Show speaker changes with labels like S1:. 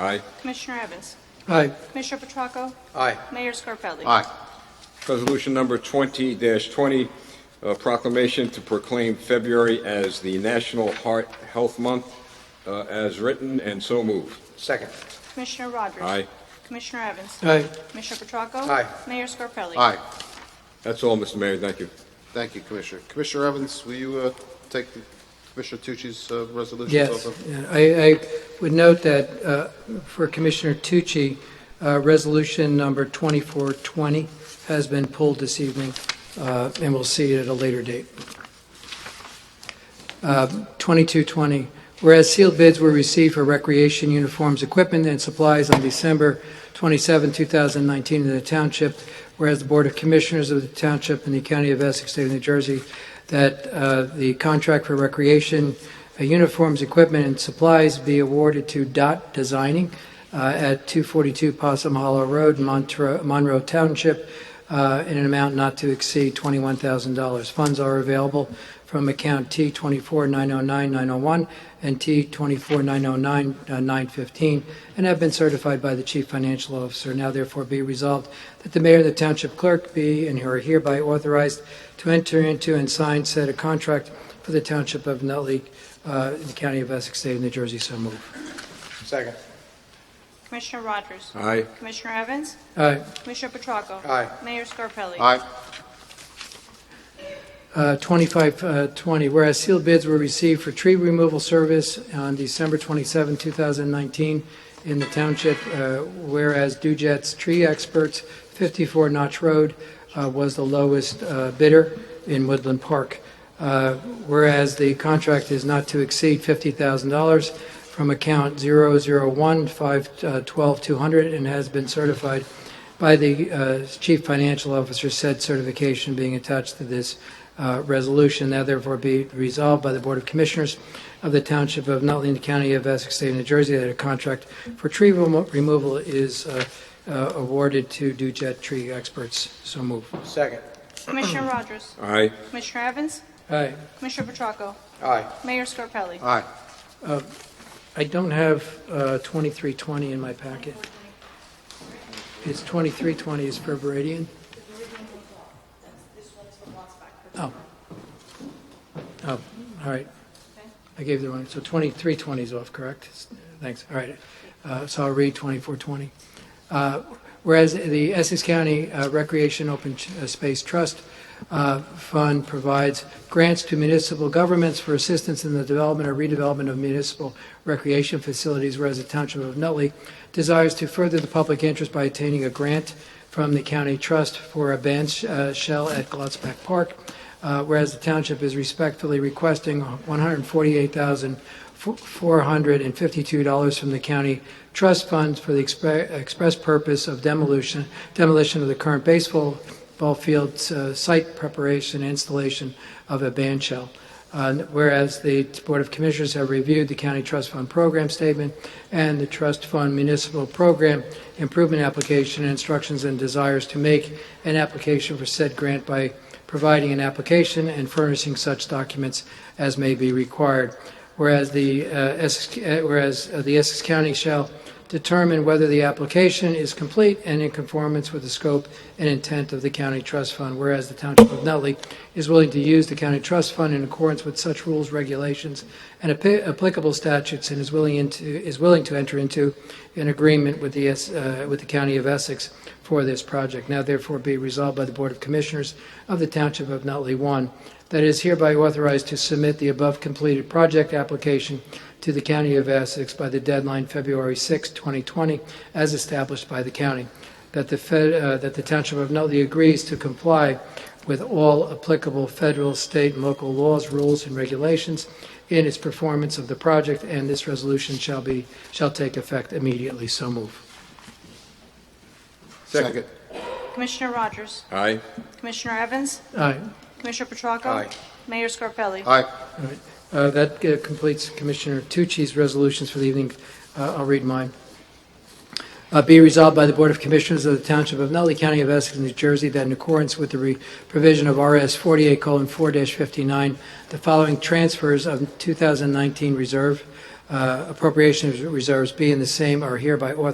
S1: Aye.
S2: Commissioner Evans?
S3: Aye.
S2: Commissioner Petracco?
S3: Aye.
S2: Mayor Scarpelli?
S1: Resolution number 20-20, uh, proclamation to proclaim February as the National Heart Health Month, uh, as written and so moved.
S3: Second.
S2: Commissioner Rogers?
S1: Aye.
S2: Commissioner Evans?
S3: Aye.
S2: Commissioner Petracco?
S3: Aye.
S2: Mayor Scarpelli?
S4: Aye.
S1: That's all, Mr. Mayor, thank you.
S4: Thank you, Commissioner. Commissioner Evans, will you uh, take the- Commissioner Tucci's uh, resolutions?
S5: Yes,
S4: over?
S5: yeah. I, I would note that uh, for Commissioner Tucci, uh, Resolution Number 2420 has been pulled this evening, uh, and we'll see it at a later date. Uh, 2220, whereas sealed bids were received for recreation uniforms, equipment, and supplies on December 27, 2019 in the township, whereas the Board of Commissioners of the Township and the County of Essex, State of New Jersey, that uh, the contract for recreation uh, uniforms, equipment, and supplies be awarded to Dot Designing uh, at 242 Possum Hollow Road, Montre- Monroe Township, uh, in an amount not to exceed $21,000. Funds are available from account T24909901 and T24909915, uh, and have been certified by the Chief Financial Officer. Now therefore be resolved that the mayor and the township clerk be and are hereby authorized to enter into and sign said a contract for the township of Nutley, uh, in the county of Essex, state of New Jersey. So move.
S3: Second.
S2: Commissioner Rogers?
S1: Aye.
S2: Commissioner Evans?
S5: Aye.
S2: Commissioner Petracco?
S3: Aye.
S2: Mayor Scarpelli?
S4: Aye.
S5: Uh, 2520, whereas sealed bids were received for tree removal service on December 27, 2019 in the township, uh, whereas Dujet's Tree Experts, 54 Notch Road, uh, was the lowest uh, bidder in Woodland Park, Uh, whereas the contract is not to exceed $50,000 from account uh, 001512200 and has been certified by the uh, Chief Financial Officer, said certification being attached to this uh, resolution. Now therefore be resolved by the Board of Commissioners of the Township of Nutley in the County of Essex, State of New Jersey, that a contract for tree remo- removal is uh, uh, awarded to Dujet Tree Experts. So move.
S3: Second.
S2: Commissioner Rogers?
S1: Aye.
S2: Commissioner Evans?
S5: Aye.
S2: Commissioner Petracco?
S3: Aye.
S2: Mayor Scarpelli?
S4: Aye.
S5: I don't have uh, 2320 in my packet. It's 2320 is for Veridian. Oh. Oh, all right. I gave the wrong, so 2320 is off, correct? Thanks, all right. Uh, So I'll read 2420. Uh, Whereas the Essex County uh, Recreation Open Ch- uh, Space Trust uh, Fund provides grants to municipal governments for assistance in the development or redevelopment of municipal recreation facilities, whereas the Township of Nutley desires to further the public interest by obtaining a grant from the county trust for a bench uh, shell at Glotzback Park, uh, whereas the township is respectfully requesting $148,452 from the county trust funds for the expre- express purpose of demolition, demolition of the current baseball ball field uh, site preparation, and installation of a band shell. Uh, Whereas the Board of Commissioners have reviewed the County Trust Fund Program Statement and the Trust Fund Municipal Program Improvement Application and instructions and desires to make an application for said grant by providing an application and furnishing such documents as may be required. Whereas the, uh, Essex, uh, whereas uh, the Essex County shall determine whether the application is complete and in conformance with the scope and intent of the county trust fund, whereas the Township of Nutley is willing to use the county trust fund in accordance with such rules, regulations, and appi- applicable statutes, and is willing into, is willing to enter into an agreement with the, S- uh, with the County of Essex for this project. Now therefore be resolved by the Board of Commissioners of the Township of Nutley, one, that is hereby authorized to submit the above completed project application to the County of Essex by the deadline February 6, 2020, as established by the county. That the Fed, uh, that the Township of Nutley agrees to comply with all applicable federal, state, and local laws, rules, and regulations in its performance of the project, and this resolution shall be, shall take effect immediately. So move.
S4: Second.
S2: Commissioner Rogers?
S1: Aye.
S2: Commissioner Evans?
S5: Aye.
S2: Commissioner Petracco?
S3: Aye.
S2: Mayor Scarpelli?
S4: Aye.
S5: Uh, That uh, completes Commissioner Tucci's resolutions for the evening. Uh, I'll read mine. Uh, Be resolved by the Board of Commissioners of the Township of Nutley County of Essex, New Jersey, that in accordance with the re- provision of RS 48:4-59, the following transfers of 2019 reserve uh, appropriation reserves be and the same are hereby authorized